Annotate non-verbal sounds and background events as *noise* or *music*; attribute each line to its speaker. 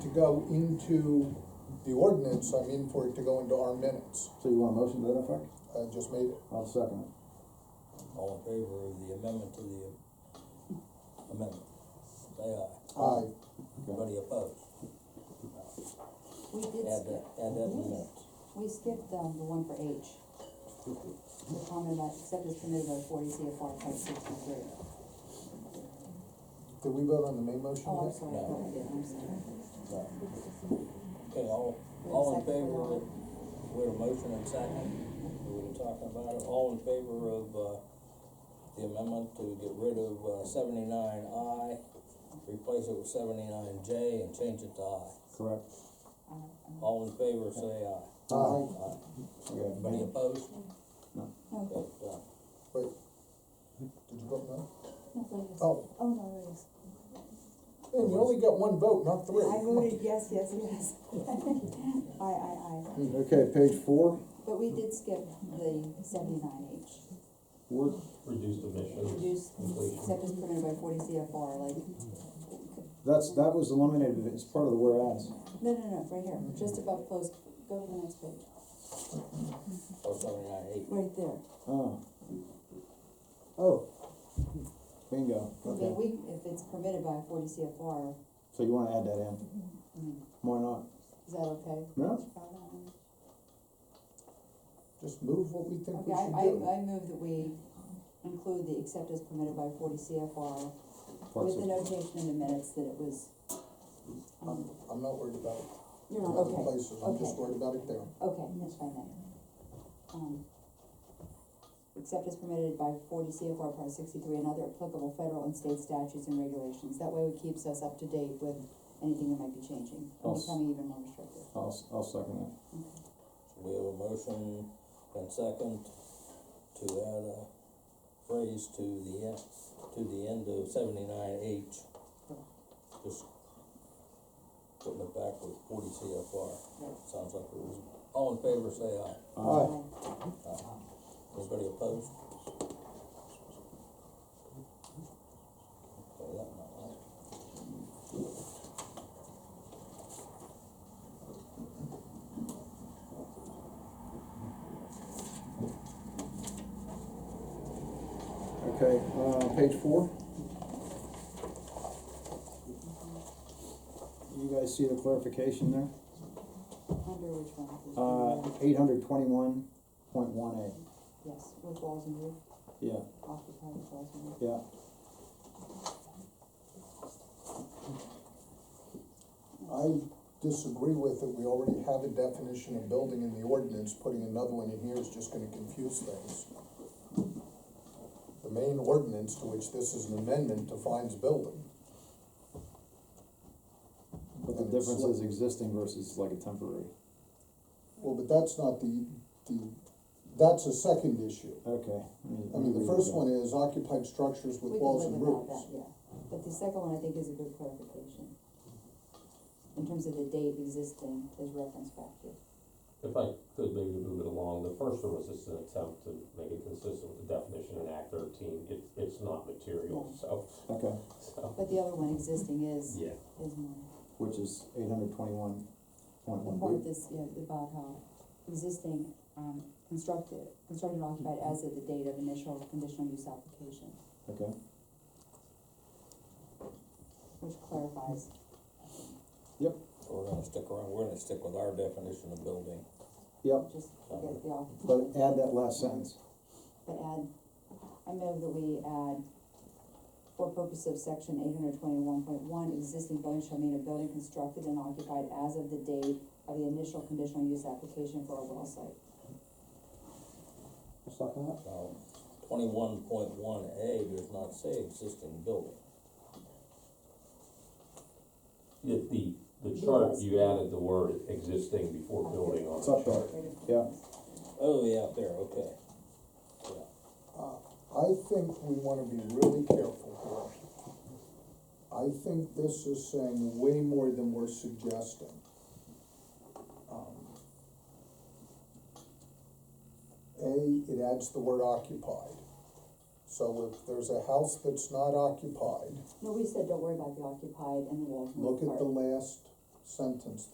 Speaker 1: go into the ordinance, I mean for it to go into our minutes.
Speaker 2: So you want a motion to that effect?
Speaker 1: I just made it.
Speaker 2: I'll second it.
Speaker 3: All in favor of the amendment to the amendment? Say aye.
Speaker 1: Aye.
Speaker 4: Oh.
Speaker 2: Okay.
Speaker 3: Anybody opposed?
Speaker 4: We did
Speaker 3: Add that,
Speaker 4: skip,
Speaker 3: add that in the minutes.
Speaker 4: we skipped, um, the one for H. The comment about except as permitted by forty CFR type sixty-three.
Speaker 1: Did we vote on the main motion
Speaker 4: Oh, I'm
Speaker 1: yet?
Speaker 4: sorry, I thought we did, I'm sorry.
Speaker 3: Right. Okay, all, all in favor of, with a motion and second, we were talking about it, all in favor of, uh, the amendment to get rid of uh, seventy-nine I, replace it with seventy-nine J and change it to I.
Speaker 2: Correct.
Speaker 4: Uh,
Speaker 3: All in favor, say aye.
Speaker 2: Aye.
Speaker 3: Aye. Any
Speaker 2: Okay.
Speaker 3: opposed?
Speaker 5: No,
Speaker 3: Okay, done.
Speaker 1: Did you vote no?
Speaker 5: no, please.
Speaker 1: Oh,
Speaker 5: Oh, no, please.
Speaker 1: and you only got one vote, not three.
Speaker 5: I voted yes, yes,
Speaker 4: *laughs*
Speaker 5: yes. Aye, aye, aye.
Speaker 2: Okay, page four,
Speaker 4: But we did skip the seventy-nine H,
Speaker 2: we're,
Speaker 6: reduced emissions.
Speaker 4: reduce except as permitted by forty CFR, like,
Speaker 2: that's, that was eliminated, it's part of the whereas.
Speaker 4: no, no, no, right here, just above close, go to the next page,
Speaker 3: Or seventy-nine eight.
Speaker 4: right there.
Speaker 2: Oh. Oh. Bingo,
Speaker 4: I mean,
Speaker 2: okay.
Speaker 4: we, if it's permitted by forty CFR,
Speaker 2: So you wanna add that in?
Speaker 4: I mean,
Speaker 2: Why not?
Speaker 4: is that okay?
Speaker 2: No?
Speaker 1: Just move what we think we
Speaker 4: Okay, I,
Speaker 1: should
Speaker 4: I,
Speaker 1: do.
Speaker 4: I move that we include the except as permitted by forty CFR
Speaker 2: Parts
Speaker 4: with the
Speaker 2: of,
Speaker 4: notation in the minutes that it was.
Speaker 1: I'm,
Speaker 4: um,
Speaker 1: I'm not worried about it.
Speaker 4: You're
Speaker 1: in
Speaker 4: not,
Speaker 1: other
Speaker 4: okay,
Speaker 1: places, I'm just
Speaker 4: okay.
Speaker 1: worried about it there.
Speaker 4: okay, that's fine then. Um, Except as permitted by forty CFR part sixty-three and other applicable federal and state statutes and regulations. That way it keeps us up to date with anything that might be changing and
Speaker 2: I'll s-
Speaker 4: becoming even more restrictive.
Speaker 2: I'll, s- I'll second that.
Speaker 3: We have a motion and second to add a phrase to the, en- to the end of seventy-nine H. Just putting it back with forty CFR, sounds like a reason. All in favor, say aye.
Speaker 2: Aye.
Speaker 3: Aye. Anybody opposed? Okay, that might like.
Speaker 2: Okay, uh, page four. You guys see the clarification there?
Speaker 4: Under which one? There's
Speaker 2: Uh,
Speaker 4: one,
Speaker 2: eight hundred twenty-one point one eight,
Speaker 4: Yes, with walls and roof,
Speaker 2: yeah,
Speaker 4: occupied with walls and roof.
Speaker 2: yeah.
Speaker 1: I disagree with it, we already have a definition of building in the ordinance, putting another one in here is just gonna confuse things. The main ordinance to which this is an amendment defines building.
Speaker 2: But the
Speaker 1: And it's
Speaker 2: difference
Speaker 1: like-
Speaker 2: is existing versus like a temporary.
Speaker 1: Well, but that's not the, the, that's a second issue.
Speaker 2: Okay. let me-
Speaker 1: I
Speaker 2: let me
Speaker 1: mean, the
Speaker 2: read it
Speaker 1: first
Speaker 2: again.
Speaker 1: one is occupied structures with
Speaker 4: Mm-hmm. We can
Speaker 1: walls
Speaker 4: live
Speaker 1: and
Speaker 4: without
Speaker 1: roofs.
Speaker 4: that, Yeah, but the second one I think is a good clarification. In terms of the date existing as reference factor.
Speaker 6: If I could maybe move it along, the first one was just an attempt to make it consistent with the definition in Act thirteen, it, it's not material, so,
Speaker 2: Okay,
Speaker 6: so,
Speaker 4: But the other one, existing is,
Speaker 6: yeah.
Speaker 4: is more,
Speaker 2: which is eight hundred twenty-one point
Speaker 4: the part
Speaker 2: one
Speaker 4: this, yeah, about how existing, um, constructed, constructed and occupied as of the date of initial conditional use application,
Speaker 2: B, okay?
Speaker 4: which clarifies. I think,
Speaker 3: We're gonna stick around, we're gonna stick with our definition of building.
Speaker 2: Yep.
Speaker 4: Just forget the occupied.
Speaker 2: But add that last sentence,
Speaker 4: But add, I move that we add, for purpose of section eight hundred twenty-one point one, existing building shall mean a building constructed and occupied as of the date of the initial conditional use application for a well site.
Speaker 3: Now, twenty-one point one A does not say existing building.
Speaker 6: The, the, the chart,
Speaker 4: Yes.
Speaker 6: you added the word existing before building on
Speaker 2: it's
Speaker 6: the
Speaker 2: up there,
Speaker 6: chart.
Speaker 2: yeah,
Speaker 3: Oh, yeah, up there, okay. Yeah.
Speaker 1: Uh, I think we wanna be really careful here. I think this is saying way more than we're suggesting. Um, A, it adds the word occupied. So if there's a house that's not occupied,
Speaker 4: No, we said don't worry about the occupied and the walls and
Speaker 1: look
Speaker 4: roof
Speaker 1: at the
Speaker 4: part.
Speaker 1: last sentence